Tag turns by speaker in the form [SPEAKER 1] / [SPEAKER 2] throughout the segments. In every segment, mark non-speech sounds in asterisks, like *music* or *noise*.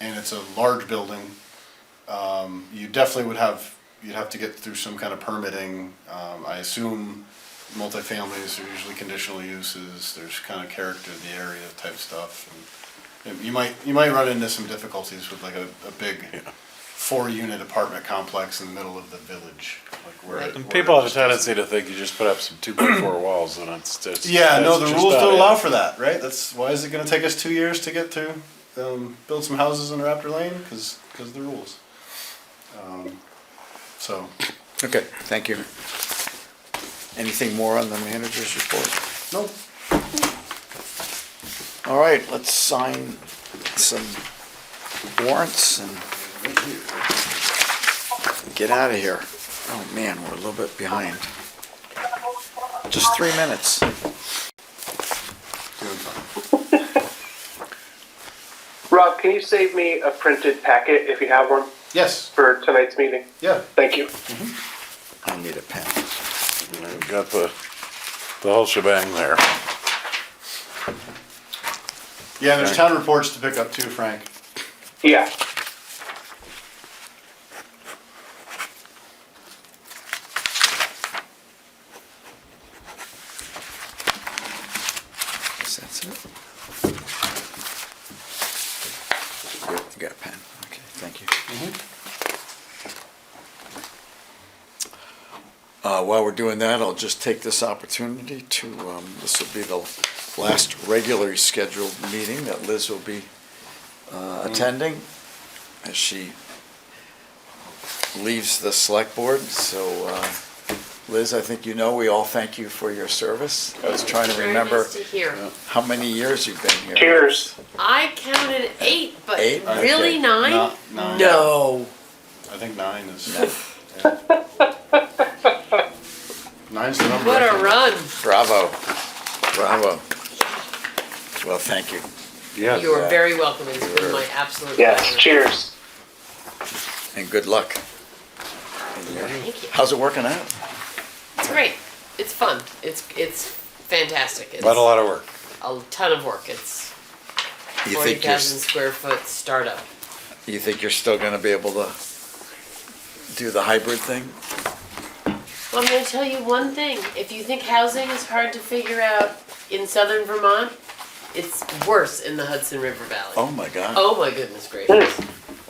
[SPEAKER 1] and it's a large building, um, you definitely would have, you'd have to get through some kind of permitting. Um, I assume multifamilies are usually conditional uses, there's kind of character of the area type stuff. and You might, you might run into some difficulties with like a, a big four-unit apartment complex in the middle of the village, like where.
[SPEAKER 2] Right.
[SPEAKER 3] And
[SPEAKER 1] where
[SPEAKER 3] people
[SPEAKER 1] it
[SPEAKER 3] have a
[SPEAKER 1] just doesn't-
[SPEAKER 3] tendency to think you just put up some two by four walls and it's just.
[SPEAKER 1] Yeah, no,
[SPEAKER 3] that's
[SPEAKER 1] the
[SPEAKER 3] just
[SPEAKER 1] rules
[SPEAKER 3] not
[SPEAKER 1] don't
[SPEAKER 3] it.
[SPEAKER 1] allow for that, right? That's why is it going to take us two years to get to um, build some houses in Raptor Lane? Because of the rules. Um, so
[SPEAKER 4] Okay, thank you. Anything more on the manager's report?
[SPEAKER 1] nope.
[SPEAKER 4] All right, let's sign some warrants and get out of here. Oh, man, we're a little bit behind. Just three minutes.
[SPEAKER 1] Doing fine.
[SPEAKER 5] Rob, can you save me a printed packet if you have one
[SPEAKER 1] Yes.
[SPEAKER 5] for tonight's meeting?
[SPEAKER 1] Yeah.
[SPEAKER 5] Thank you.
[SPEAKER 4] I need a pen.
[SPEAKER 3] We've Got the, the whole shebang there.
[SPEAKER 1] Yeah. There's town reports to pick up too, Frank.
[SPEAKER 5] Yeah.
[SPEAKER 4] Yes, That's it. Yep, You got a pen, okay, thank you. Uh, while we're doing that, I'll just take this opportunity to, um, this will be the last regularly scheduled meeting that Liz will be, uh, attending as she leaves the select board, so, uh, Liz, I think you know, we all thank you for your service. I was trying to
[SPEAKER 2] Very
[SPEAKER 4] remember.
[SPEAKER 2] nice to hear.
[SPEAKER 4] How many years you've been here?
[SPEAKER 5] Cheers.
[SPEAKER 2] I counted eight, but
[SPEAKER 4] Eight? Okay.
[SPEAKER 2] really nine?
[SPEAKER 1] Not nine.
[SPEAKER 4] No.
[SPEAKER 1] I think nine is.
[SPEAKER 2] *laughs*
[SPEAKER 1] yeah. Nine's the number.
[SPEAKER 2] What
[SPEAKER 1] I
[SPEAKER 2] a
[SPEAKER 1] think.
[SPEAKER 2] run.
[SPEAKER 4] Bravo. Bravo. Well, thank you.
[SPEAKER 3] Yeah.
[SPEAKER 2] You are very welcome. It's been my absolute
[SPEAKER 5] Yes.
[SPEAKER 2] pleasure.
[SPEAKER 5] Cheers.
[SPEAKER 4] And good luck.
[SPEAKER 2] Thank you.
[SPEAKER 4] How's it working out?
[SPEAKER 2] It's great. It's fun. It's it's fantastic. It's
[SPEAKER 3] But a lot of work.
[SPEAKER 2] a ton of work. It's
[SPEAKER 4] You
[SPEAKER 2] forty
[SPEAKER 4] think you're,
[SPEAKER 2] thousand square foot startup.
[SPEAKER 4] you think you're still gonna be able to do the hybrid thing?
[SPEAKER 2] Well, I'm going to tell you one thing. If you think housing is hard to figure out in southern Vermont, it's worse in the Hudson River Valley.
[SPEAKER 4] Oh, my God.
[SPEAKER 2] Oh my goodness gracious.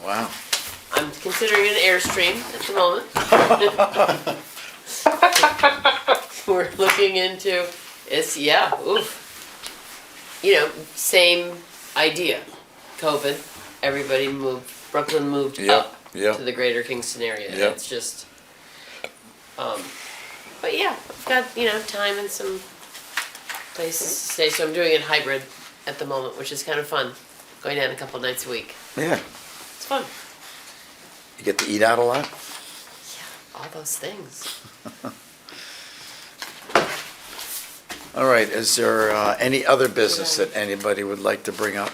[SPEAKER 4] Wow.
[SPEAKER 2] I'm considering an Airstream at the moment. We're looking into, it's, yeah, oof. You know, same idea, COVID, everybody moved, Brooklyn moved
[SPEAKER 4] Yep,
[SPEAKER 2] up
[SPEAKER 4] yep.
[SPEAKER 2] to the greater Kingston area.
[SPEAKER 4] Yep.
[SPEAKER 2] It's just, um, but yeah, I've got, you know, time and some places to stay, so I'm doing it hybrid at the moment, which is kind of fun, going down a couple nights a week.
[SPEAKER 4] Yeah.
[SPEAKER 2] It's fun.
[SPEAKER 4] You get to eat out a lot?
[SPEAKER 2] Yeah, all those things.
[SPEAKER 4] All right, is there uh, any other business that anybody would like to bring up?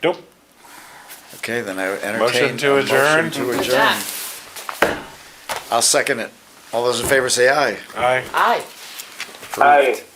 [SPEAKER 3] Nope.
[SPEAKER 4] Okay, then I would entertain.
[SPEAKER 3] Motion to
[SPEAKER 4] a
[SPEAKER 3] adjourn?
[SPEAKER 4] Motion to
[SPEAKER 2] With
[SPEAKER 4] adjourn.
[SPEAKER 2] that,
[SPEAKER 4] I'll second it. All those in favor say aye.
[SPEAKER 3] Aye.
[SPEAKER 2] Aye.
[SPEAKER 5] Hi.